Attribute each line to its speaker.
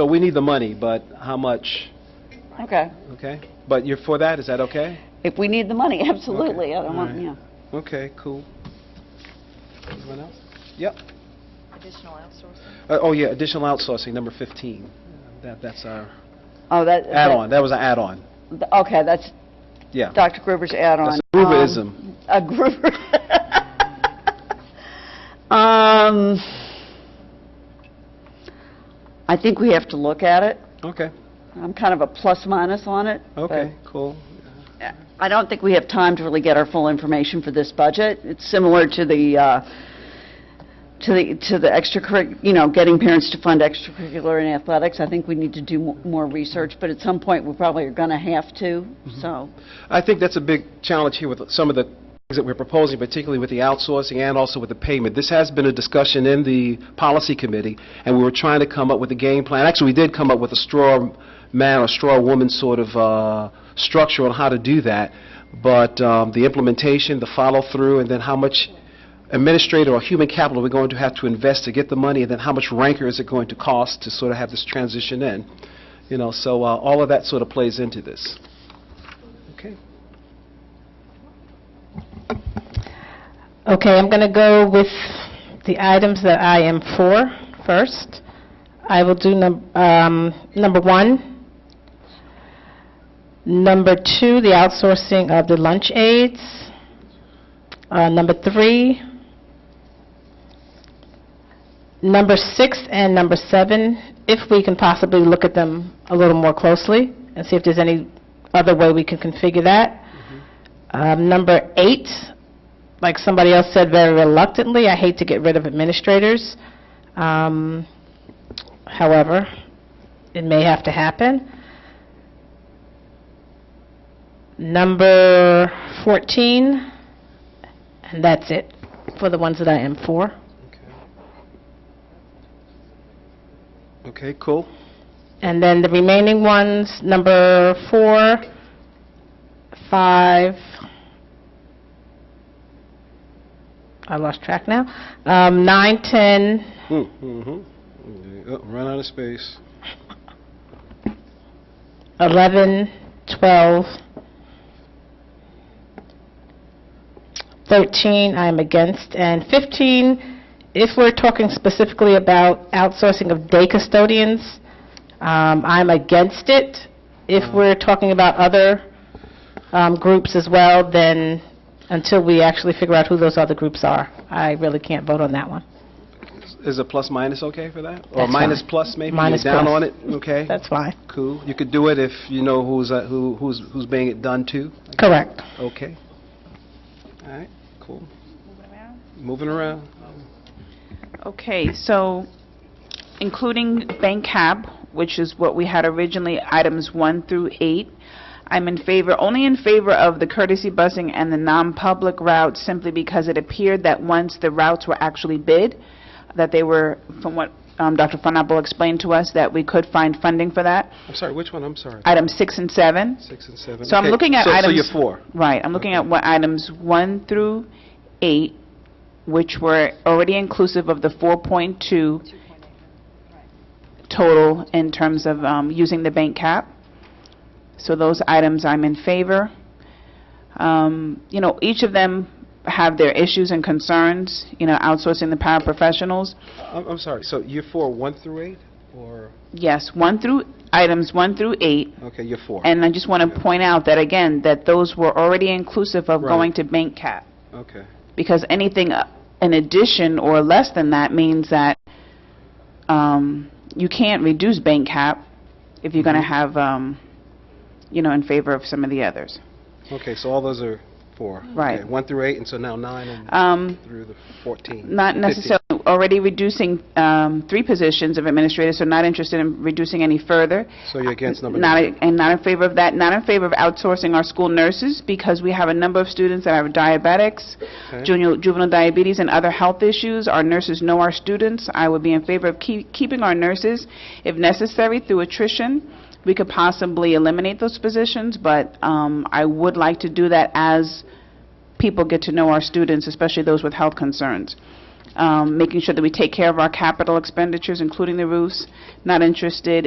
Speaker 1: So we need the money, but how much,
Speaker 2: Okay.
Speaker 1: okay? But you're for that, is that okay?
Speaker 2: If we need the money, absolutely. I don't want,
Speaker 1: Alright.
Speaker 2: yeah.
Speaker 1: Okay, cool. Anyone else? Yep.
Speaker 3: Additional outsourcing?
Speaker 1: Uh, Oh, yeah, additional outsourcing, number 15. That, that's our
Speaker 2: Oh, that. that-
Speaker 1: add-on, that was an add-on,
Speaker 2: th- Okay, that's
Speaker 1: yeah.
Speaker 2: Dr. Gruber's add-on.
Speaker 1: That's a Gruberism.
Speaker 2: Um, A Gruber. Um, I think we have to look at it.
Speaker 1: Okay,
Speaker 2: I'm kind of a plus minus on it. but-
Speaker 1: okay, cool.
Speaker 2: I don't think we have time to really get our full information for this budget. It's similar to the, uh, to the, to the extracurric, you know, getting parents to fund extracurricular and athletics. I think we need to do mo- more research, but at some point, we probably are going to have to, so.
Speaker 1: I think that's a big challenge here with some of the things that we're proposing, particularly with the outsourcing and also with the payment. This has been a discussion in the policy committee, and we were trying to come up with a game plan. Actually, we did come up with a straw man or straw woman sort of uh, structure on how to do that, but um, the implementation, the follow-through, and then how much administrative or human capital we're going to have to invest to get the money, and then how much rancor is it going to cost to sort of have this transition in? You know, so uh, all of that sort of plays into this. Okay.
Speaker 4: Okay, I'm going to go with the items that I am for first. I will do num- um, number one, number two, the outsourcing of the lunch aides, Uh, number three, number six, and number seven, if we can possibly look at them a little more closely and see if there's any other way we can configure that. Um, Number eight, like somebody else said very reluctantly, I hate to get rid of administrators. Um, However, it may have to happen. Number 14, and that's it for the ones that I am for.
Speaker 1: Okay, cool.
Speaker 4: And then the remaining ones, number four, five, I lost track now, um, nine, 10,
Speaker 1: Hmm, Mm-hmm. Run out of space.
Speaker 4: 11, 12, 13, I'm against, and 15, if we're talking specifically about outsourcing of day custodians, um, I'm against it. If we're talking about other um, groups as well, then until we actually figure out who those other groups are, I really can't vote on that one.
Speaker 1: Is a plus minus okay for that? Or
Speaker 4: That's
Speaker 1: minus
Speaker 4: fine.
Speaker 1: plus maybe?
Speaker 4: Minus
Speaker 1: You're down
Speaker 4: plus.
Speaker 1: on it? Okay,
Speaker 4: That's fine.
Speaker 1: cool. You could do it if you know who's, uh, who, who's, who's being it done to.
Speaker 4: Correct.
Speaker 1: Okay. All right, cool. Moving around.
Speaker 5: Okay, so including bank cab, which is what we had originally, items one through eight, I'm in favor, only in favor of the courtesy busing and the non-public routes simply because it appeared that once the routes were actually bid, that they were, from what um, Dr. Funapple explained to us, that we could find funding for that.
Speaker 1: I'm sorry, which one? I'm sorry.
Speaker 5: Items six and seven.
Speaker 1: Six and seven.
Speaker 5: So I'm
Speaker 1: Okay,
Speaker 5: looking at
Speaker 1: so- So
Speaker 5: items-
Speaker 1: you're four.
Speaker 5: Right, I'm looking at what items one through eight, which were already inclusive of the 4.2 total in terms of um, using the bank cap. So those items I'm in favor. Um, You know, each of them have their issues and concerns, you know, outsourcing the paraprofessionals.
Speaker 1: I'm, I'm sorry, so you're four, one through eight? Or,
Speaker 5: Yes, one through, items one through eight,
Speaker 1: okay, you're four.
Speaker 5: and I just want to point out that, again, that those were already inclusive of
Speaker 1: Right.
Speaker 5: going to bank cap.
Speaker 1: Okay.
Speaker 5: because anything uh, in addition or less than that means that um, you can't reduce bank cap if you're going to
Speaker 1: Mhm.
Speaker 5: have, um, you know, in favor of some of the others.
Speaker 1: Okay, so all those are four.
Speaker 5: Right.
Speaker 1: Okay, One through eight, and so now nine and
Speaker 5: Um,
Speaker 1: through the 14.
Speaker 5: Not necessarily, already reducing um, three positions of administrators, so not interested in reducing any further.
Speaker 1: So you're against number
Speaker 5: Not,
Speaker 1: nine?
Speaker 5: and not in favor of that, not in favor of outsourcing our school nurses, because we have a number of students that have diabetics,
Speaker 1: Okay.
Speaker 5: junior- juvenile diabetes, and other health issues. Our nurses know our students. I would be in favor of keep- keeping our nurses. If necessary, through attrition, we could possibly eliminate those positions, but um, I would like to do that as people get to know our students, especially those with health concerns. Um, Making sure that we take care of our capital expenditures, including the roofs. Not interested